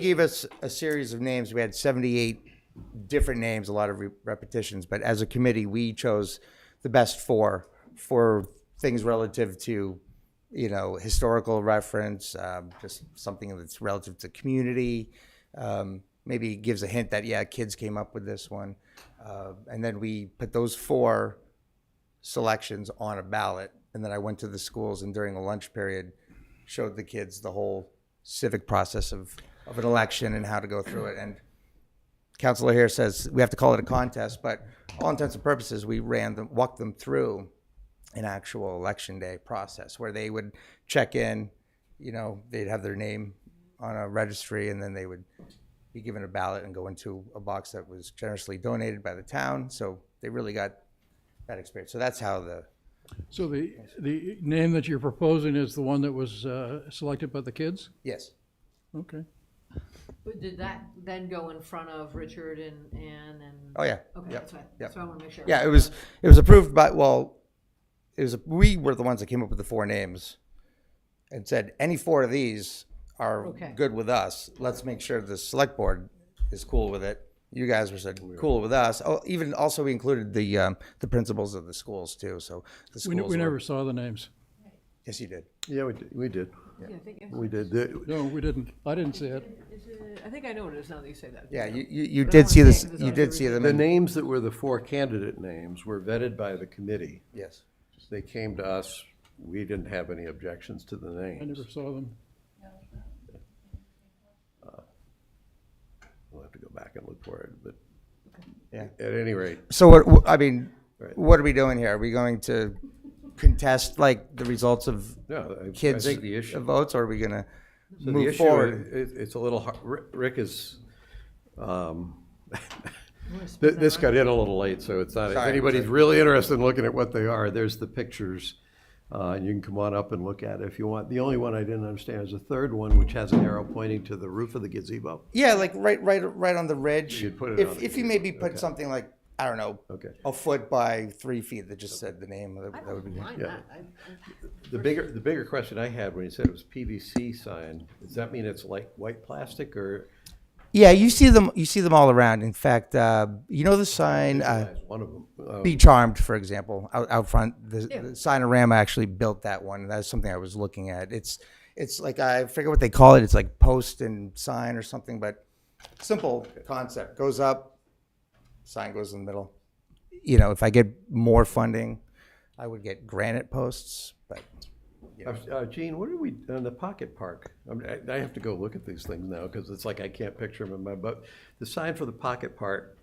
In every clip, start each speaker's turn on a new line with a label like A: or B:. A: gave us a series of names. We had 78 different names, a lot of re- repetitions, but as a committee, we chose the best four for things relative to, you know, historical reference, um, just something that's relative to community. Um, maybe gives a hint that, yeah, kids came up with this one. Uh, and then we put those four selections on a ballot. And then I went to the schools and during the lunch period, showed the kids the whole civic process of, of an election and how to go through it. And Counselor here says we have to call it a contest, but all intents and purposes, we ran them, walked them through an actual election day process where they would check in, you know, they'd have their name on a registry and then they would be given a ballot and go into a box that was generously donated by the town. So they really got that experience. So that's how the,
B: So the, the name that you're proposing is the one that was uh, selected by the kids?
A: yes.
B: Okay.
C: But did that then go in front of Richard and Ann and?
A: Oh, yeah.
C: Okay,
A: Yep.
C: that's what, that's what I want to make sure.
A: Yeah, it was it was approved by well, it was we were the ones that came up with the four names, and said any four of these are
C: Okay.
A: good with us. Let's make sure the select board is cool with it. You guys were said cool with us. Oh, even also we included the um, the principals of the schools too. So the
B: We,
A: schools.
B: ne- we
A: were-
B: never saw the names.
A: Yes, you did.
D: Yeah, we did, we did,
C: Yeah, I think,
D: we did. The-
B: No, we didn't. I didn't see it.
C: is it- I think I know what it is now that you say that.
A: Yeah, you you, you
C: don't
A: did see
C: wanna
A: this.
C: say it 'cause
A: You
C: it's
A: did see them.
D: The
A: In,
D: names that were the four candidate names were vetted by the committee.
A: yes.
D: They came to us, we didn't have any objections to the
B: I never
D: names.
B: saw them.
D: We'll have to go back and look for it, but
A: Yeah.
D: at any rate,
A: So what, wh- I mean,
D: Right.
A: what are we doing here? Are we going to contest like the results of
D: no, I- I
A: kids
D: think the issue.
A: votes, or are we going to
D: So the
A: move
D: issue
A: forward?
D: is- It, it's a little, har- Ri- Rick is, um,
C: wanna
D: thi- this got in a little late, so it's not, if
A: Sorry.
D: anybody's really interested in looking at what they are, there's the pictures. Uh, and you can come on up and look at it if you want. The only one I didn't understand is the third one, which has an arrow pointing to the roof of the gazebo.
A: Yeah, like right, right, right on the ridge.
D: You'd put it
A: if,
D: on the
A: if you maybe put something like I don't know,
D: Okay.
A: a foot by three feet that just said the name. That, that would be
C: Mind
D: Yeah.
C: that. I-
D: The bigger, the bigger question I had when you said it was PVC sign, does that mean it's like white plastic or
A: yeah. You see them, you see them all around. In fact, uh, you know the sign uh,
D: is one of them? Uh,
A: "Be Charmed," for example, out, out front. The,
C: Yeah.
A: the Signorama actually built that one. That's something I was looking at. It's it's like I forget what they call it. It's like post and sign or something, but simple concept goes up, sign goes in the middle. You know, if I get more funding, I would get granite posts, but
D: Uh, Gene, what are we, on the pocket park? I mean, I- I have to go look at these things now, because it's like I can't picture them in my, but the sign for the pocket park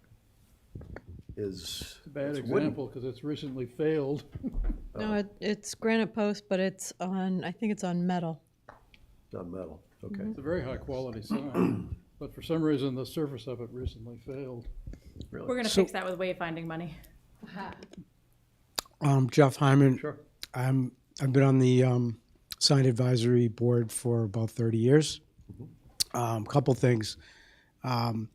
D: is.
B: Bad
D: it's wooden.
B: example, because it's recently failed.
A: Oh.
E: No, it, it's granite post, but it's on, I think it's on metal.
D: It's on metal, okay.
B: It's a very high-quality sign, but for some reason, the surface of it recently failed.
F: We're gonna fix that with wayfinding money.
G: Um, Jeff Hyman.
D: Sure.
G: I'm, I've been on the um, sign advisory board for about 30 years.
A: Mm-hmm.
G: Um, couple things. Um,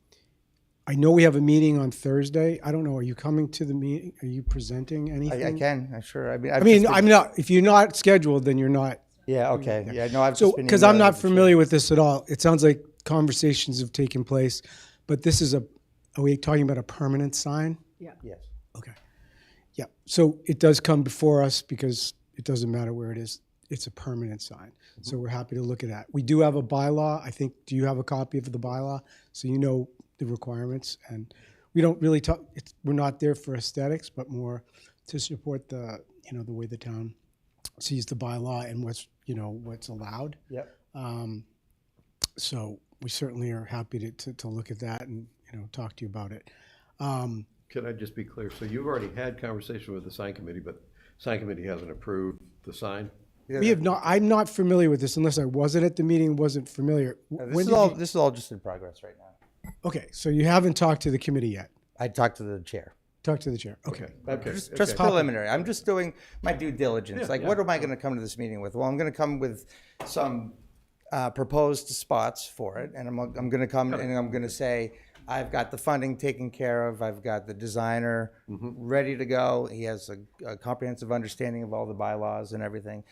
G: I know we have a meeting on Thursday. I don't know. Are you coming to the meeting? Are you presenting anything?
A: I, I can. I sure. I mean, I've
G: Mm. I mean,
A: just been-
G: I'm not. If you're not scheduled, then you're not.
A: yeah. Okay. Yeah. No, I've
G: So,
A: just been
G: because I'm
A: emailing
G: not
A: the
G: familiar with this at all. It sounds like conversations have taken place, but this is a. Are we talking about a permanent sign?
A: chair. Yes.
G: Okay. Yeah, so it does come before us because it doesn't matter where it is. It's a permanent sign.
A: Mm-hmm.
G: So we're happy to look at that. We do have a bylaw. I think, do you have a copy of the bylaw? So you know the requirements and we don't really talk, it's, we're not there for aesthetics, but more to support the, you know, the way the town sees the bylaw and what's, you know, what's allowed.
A: Yep.
G: So we certainly are happy to, to, to look at that and, you know, talk to you about it. Um,
D: Can I just be clear? So you've already had conversation with the sign committee, but sign committee hasn't approved the sign?
G: We have not, I'm not familiar with this unless I wasn't at the meeting, wasn't familiar.
A: Now,
G: When
A: this is
G: did
A: all.
G: you-
A: This is all just in progress right now.
G: Okay, so you haven't talked to the committee yet.
A: I talked to the chair.
G: Talk to the chair. Okay.
D: Okay, okay.
A: Just, just preliminary. I'm just doing my due diligence. like, what am I going to come to this meeting with? Well, I'm going to come with some uh, proposed spots for it, and I'm, I'm going to come and I'm going to say, I've got the funding taken care of. I've got the designer
D: Mm-hmm.
A: ready to go. He has a, a comprehensive understanding of all the bylaws and everything.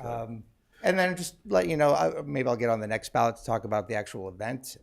A: Um, And then just let you know, I- maybe I'll get on the next ballot to talk about the actual event.